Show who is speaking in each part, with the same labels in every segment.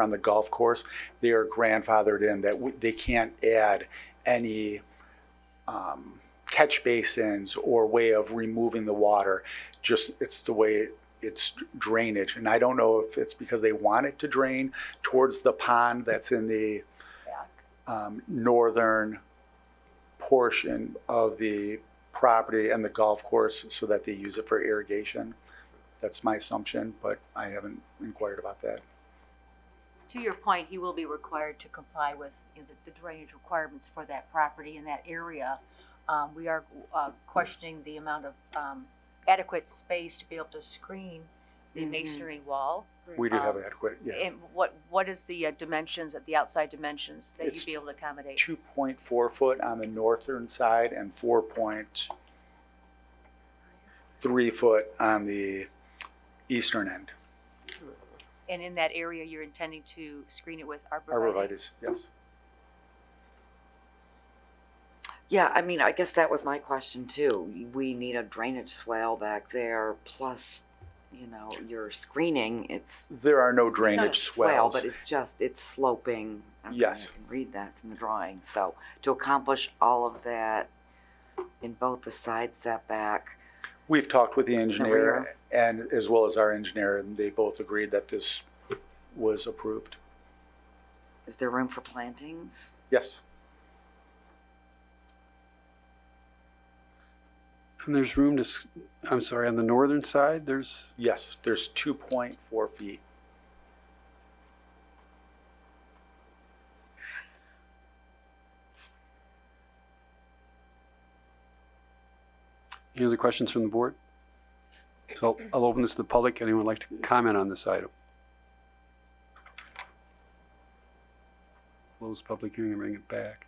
Speaker 1: on the golf course, they are grandfathered in that we- they can't add any um, catch basins or way of removing the water. Just, it's the way it's drainage. And I don't know if it's because they want it to drain towards the pond that's in the um, northern portion of the property and the golf course so that they use it for irrigation. That's my assumption, but I haven't inquired about that.
Speaker 2: To your point, he will be required to comply with you know, the the drainage requirements for that property in that area. Um, We are uh, questioning the amount of um, adequate space to be able to screen the
Speaker 3: Mhm.
Speaker 2: masonry wall.
Speaker 1: We do have
Speaker 2: Um,
Speaker 1: adequate,
Speaker 3: eh,
Speaker 1: yeah.
Speaker 2: And what, what is the uh, dimensions, of the outside dimensions that
Speaker 1: It's
Speaker 2: you'd be able to accommodate?
Speaker 1: two point four foot on the northern side and four point three foot on the eastern end.
Speaker 2: And in that area, you're intending to screen it with arborvitae?
Speaker 1: Arborvitae's, yes.
Speaker 3: Yeah, I mean, I guess that was my question too. We need a drainage swale back there, plus, you know, your screening, it's
Speaker 1: There are no
Speaker 3: not a
Speaker 1: drainage
Speaker 3: swale,
Speaker 1: swells.
Speaker 3: but it's just, it's sloping. Okay,
Speaker 1: Yes.
Speaker 3: I can read that from the drawing. So to accomplish all of that in both the side setback,
Speaker 1: We've talked with the engineer
Speaker 3: rear.
Speaker 1: and as well as our engineer, and they both agreed that this was approved.
Speaker 3: is there room for plantings?
Speaker 1: Yes,
Speaker 4: And there's room to, s- I'm sorry, on the northern side, there's,
Speaker 1: yes, there's two point four feet.
Speaker 4: any other questions from the board? So I'll open this to the public. Anyone like to comment on this item? Close public hearing and bring it back.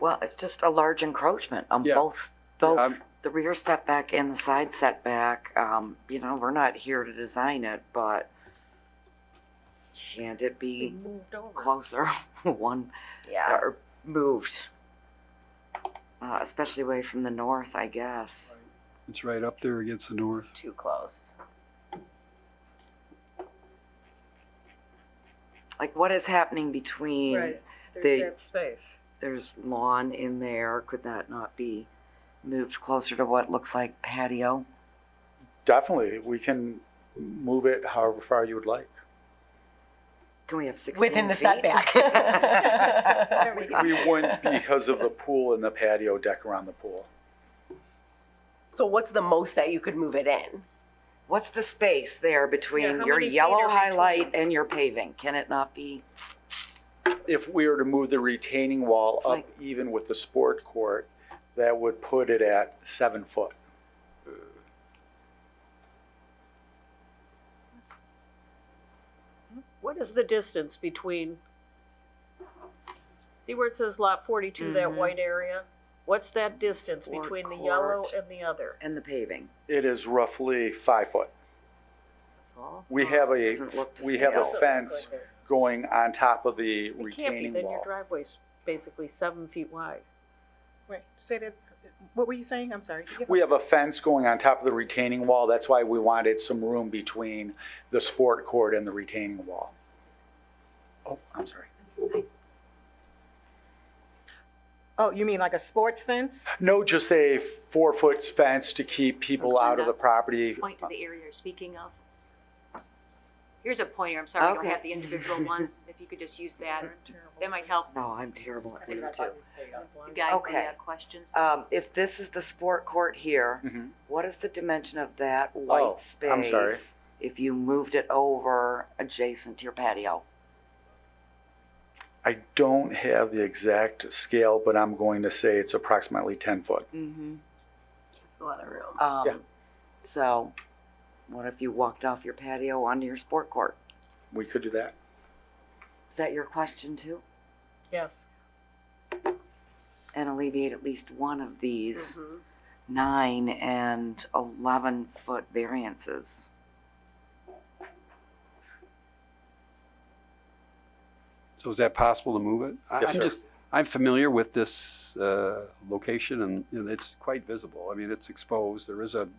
Speaker 3: Well, it's just a large encroachment on
Speaker 4: Yeah.
Speaker 3: both, both
Speaker 4: I'm-
Speaker 3: the rear setback and the side setback. Um, you know, we're not here to design it, but can't it be
Speaker 2: moved over.
Speaker 3: closer, one,
Speaker 2: Yeah.
Speaker 3: or moved? Uh, especially away from the north, I guess.
Speaker 4: It's right up there against the north.
Speaker 2: too close.
Speaker 3: Like what is happening between,
Speaker 5: Right,
Speaker 3: they-
Speaker 5: there's that space.
Speaker 3: there's lawn in there, could that not be moved closer to what looks like patio?
Speaker 1: Definitely, we can move it however far you would like.
Speaker 3: Can we have sixteen feet?
Speaker 5: Within the setback.
Speaker 1: We wouldn't because of the pool and the patio deck around the pool.
Speaker 6: So what's the most that you could move it in?
Speaker 3: What's the space there
Speaker 5: Yeah,
Speaker 3: between
Speaker 5: how
Speaker 3: your
Speaker 5: many feet
Speaker 3: yellow
Speaker 5: are between?
Speaker 3: highlight and your paving? Can it not be?
Speaker 1: if we were to move the retaining wall
Speaker 3: It's
Speaker 1: up
Speaker 3: like-
Speaker 1: even with the sport court, that would put it at seven foot.
Speaker 5: What is the distance between, see where it says lot forty-two, that
Speaker 3: Mhm.
Speaker 5: white area? What's that distance
Speaker 3: Sport
Speaker 5: between the yellow
Speaker 3: court.
Speaker 5: and the other?
Speaker 3: And the paving.
Speaker 1: It is roughly five foot.
Speaker 3: That's all.
Speaker 1: We have a,
Speaker 3: Doesn't look to
Speaker 1: we have a
Speaker 3: scale.
Speaker 1: fence going on top of the
Speaker 5: It can't be,
Speaker 1: retaining
Speaker 5: then your
Speaker 1: wall.
Speaker 5: driveway's basically seven feet wide.
Speaker 7: Wait, say that, what were you saying? I'm sorry.
Speaker 1: We have a fence going on top of the retaining wall. That's why we wanted some room between the sport court and the retaining wall. Oh, I'm sorry.
Speaker 7: Oh, you mean like a sports fence?
Speaker 1: No, just a four foot fence to keep people out of the property.
Speaker 2: Point to the area you're speaking of. Here's a pointer, I'm sorry, I don't
Speaker 3: Okay.
Speaker 2: have the individual ones, if you could just use that, that might help
Speaker 3: No, I'm terrible at these two.
Speaker 2: to guide the
Speaker 3: Okay.
Speaker 2: uh, questions.
Speaker 3: Um, if this is the sport court here,
Speaker 1: Mhm.
Speaker 3: what is the dimension of that white space?
Speaker 1: Oh, I'm sorry.
Speaker 3: If you moved it over adjacent to your patio?
Speaker 1: I don't have the exact scale, but I'm going to say it's approximately 10 foot.
Speaker 3: Mm-hmm.
Speaker 2: It's a lot of room.
Speaker 1: Yeah.
Speaker 3: Um, so what if you walked off your patio onto your sport court?
Speaker 1: We could do that.
Speaker 3: Is that your question too?
Speaker 5: Yes.
Speaker 3: And alleviate at least one of these.
Speaker 5: Mhm.
Speaker 3: nine and 11 foot variances.
Speaker 4: So is that possible to move it? I-
Speaker 1: Yes,
Speaker 4: I'm
Speaker 1: sir.
Speaker 4: just- I'm familiar with this uh, location and and it's quite visible. I mean, it's exposed. There is a